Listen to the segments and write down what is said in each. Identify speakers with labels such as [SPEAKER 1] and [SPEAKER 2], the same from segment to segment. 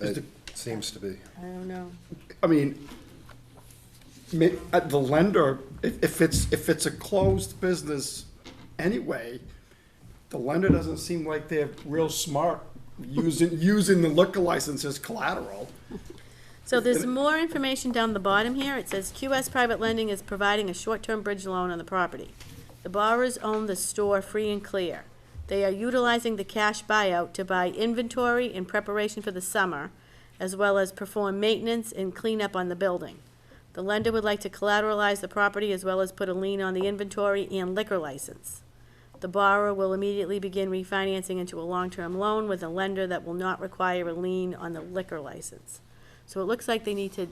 [SPEAKER 1] It seems to be.
[SPEAKER 2] I don't know.
[SPEAKER 3] I mean, ma- uh, the lender, if, if it's, if it's a closed business anyway, the lender doesn't seem like they're real smart using, using the liquor license as collateral.
[SPEAKER 2] So there's more information down the bottom here. It says QS Private Lending is providing a short-term bridge loan on the property. The borrowers own the store free and clear. They are utilizing the cash buyout to buy inventory in preparation for the summer, as well as perform maintenance and cleanup on the building. The lender would like to collateralize the property as well as put a lien on the inventory and liquor license. The borrower will immediately begin refinancing into a long-term loan with a lender that will not require a lien on the liquor license. So it looks like they need to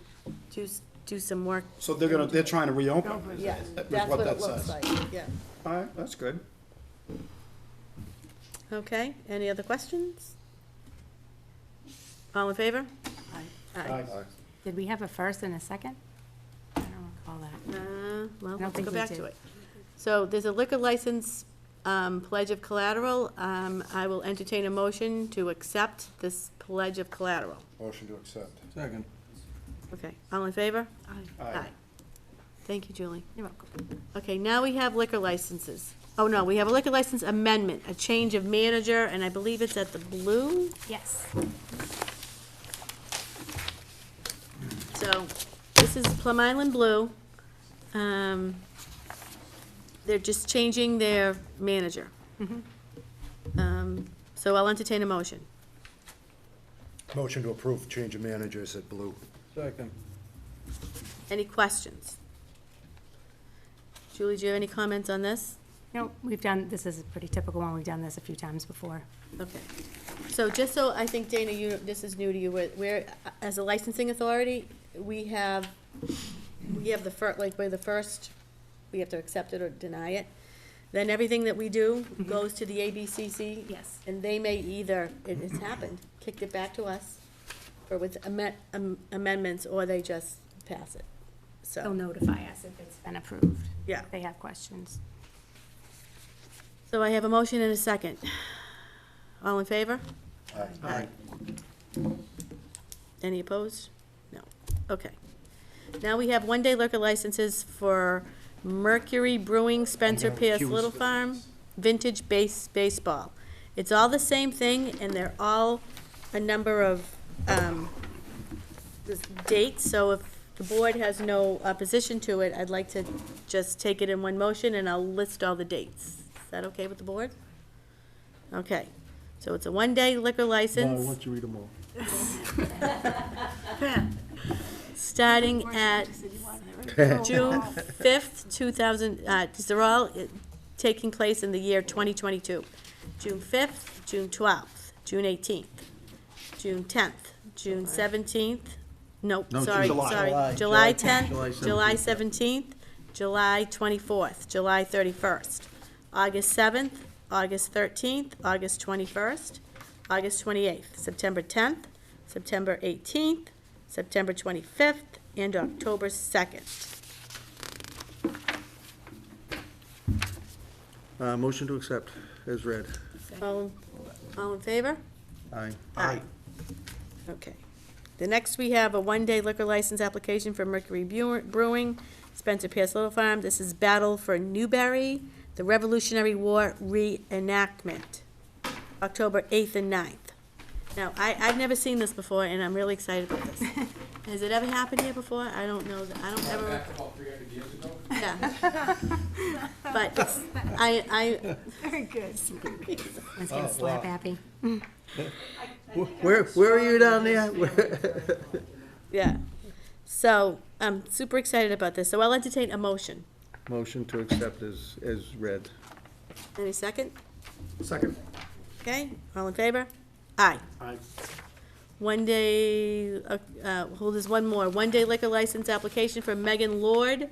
[SPEAKER 2] do, s- do some work.
[SPEAKER 3] So they're gonna, they're trying to reopen. is-
[SPEAKER 4] Yeah,
[SPEAKER 3] is
[SPEAKER 4] that's what
[SPEAKER 3] that
[SPEAKER 4] it looks
[SPEAKER 3] says.
[SPEAKER 4] like, yeah.
[SPEAKER 3] All right, that's good.
[SPEAKER 2] Okay, any other questions? All in favor? Aye.
[SPEAKER 3] Aye.
[SPEAKER 5] Did we have a first and a second? I don't recall that.
[SPEAKER 2] Uh, Well,
[SPEAKER 5] don't
[SPEAKER 2] let's
[SPEAKER 5] think
[SPEAKER 2] go
[SPEAKER 5] we
[SPEAKER 2] back
[SPEAKER 5] did.
[SPEAKER 2] to it. So there's a liquor license um, pledge of collateral. Um, I will entertain a motion to accept this pledge of collateral.
[SPEAKER 1] Motion to accept.
[SPEAKER 6] Second.
[SPEAKER 2] Okay, all in favor?
[SPEAKER 3] Aye.
[SPEAKER 2] Thank you, Julie.
[SPEAKER 5] You're welcome.
[SPEAKER 2] Okay, now we have liquor licenses. Oh, no, we have a liquor license amendment, a change of manager, and I believe it's at the Blue.
[SPEAKER 5] Yes.
[SPEAKER 2] So, this is Plum Island Blue. Um, They're just changing their manager. Um, So I'll entertain a motion.
[SPEAKER 1] Motion to approve change of managers at Blue.
[SPEAKER 6] Second.
[SPEAKER 2] Any questions? Julie, do you have any comments on this?
[SPEAKER 5] No, we've done, this is a pretty typical one. We've done this a few times before.
[SPEAKER 2] Okay. So just so, I think Dana, you, this is new to you, where- where, uh, as a licensing authority, we have, we have the fir, like, we're the first, we have to accept it or deny it. Then everything that we do goes to the ABCC.
[SPEAKER 5] Yes.
[SPEAKER 2] And they may either, it has happened, kicked it back to us, or with amen- am- amendments, or they just pass it.
[SPEAKER 5] They'll
[SPEAKER 2] So,
[SPEAKER 5] notify us if it's been approved.
[SPEAKER 2] Yeah.
[SPEAKER 5] If they have questions.
[SPEAKER 2] so I have a motion and a second. All in favor?
[SPEAKER 3] Aye.
[SPEAKER 2] Any opposed? No. Okay. Now we have one-day liquor licenses for Mercury Brewing, Spencer Pierce Little Farm, Vintage Base Baseball. It's all the same thing, and they're all a number of, um, this date, so if the board has no opposition to it, I'd like to just take it in one motion, and I'll list all the dates. Is that okay with the board? Okay, so it's a one-day liquor license.
[SPEAKER 6] you to read them all.
[SPEAKER 2] starting at June fifth, two thousand, uh, these are all uh, taking place in the year twenty twenty-two. June fifth, June twelfth, June eighteenth, June tenth, June seventeenth, nope,
[SPEAKER 6] No,
[SPEAKER 2] sorry,
[SPEAKER 6] July.
[SPEAKER 2] sorry.
[SPEAKER 6] July. July
[SPEAKER 2] July
[SPEAKER 6] 10th, July
[SPEAKER 2] tenth, July
[SPEAKER 6] 17th, yeah.
[SPEAKER 2] seventeenth, July twenty-fourth, July thirty-first, August seventh, August thirteenth, August twenty-first, August twenty-eighth, September tenth, September eighteenth, September 25th, and October 2nd.
[SPEAKER 6] Uh, motion to accept as read.
[SPEAKER 2] All, all in favor?
[SPEAKER 6] Aye.
[SPEAKER 2] Aye. Okay. The next, we have a one-day liquor license application for Mercury Brewer- Brewing, Spencer Pierce Little Farm. This is Battle for Newberry, the Revolutionary War reenactment, October 8th and 9th. Now, I, I've never seen this before, and I'm really excited about this. Has it ever happened here before? I don't know, that- I don't ever.
[SPEAKER 7] about three hundred years ago.
[SPEAKER 2] Yeah. But it's- I, I,
[SPEAKER 5] Very good. Let's
[SPEAKER 2] Oh,
[SPEAKER 5] get a slap happy.
[SPEAKER 6] Where, where are you down there? Where-
[SPEAKER 2] yeah. So I'm super excited about this. So I'll entertain a motion.
[SPEAKER 6] Motion to accept as, as read.
[SPEAKER 2] Any second?
[SPEAKER 3] Second.
[SPEAKER 2] Okay, all in favor? Aye.
[SPEAKER 3] Aye.
[SPEAKER 2] One day, uh, uh, hold this one more. One day liquor license application for Megan Lord,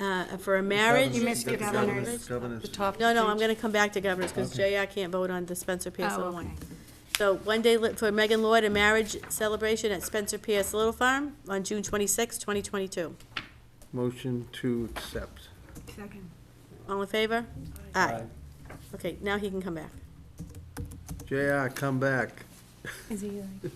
[SPEAKER 2] uh, for a marriage.
[SPEAKER 5] You missed your governors.
[SPEAKER 6] Governors.
[SPEAKER 2] No, no, I'm gonna come back to governors, because JR can't vote on the Spencer Pierce
[SPEAKER 5] Oh,
[SPEAKER 2] Little
[SPEAKER 5] okay.
[SPEAKER 2] one. So one day li- for Megan Lloyd, a marriage celebration at Spencer Pierce Little Farm on June twenty-sixth, twenty twenty-two.
[SPEAKER 6] Motion to accept.
[SPEAKER 2] All in favor? Aye. Okay, now he can come back.
[SPEAKER 6] JR, come back.
[SPEAKER 5] Is he like,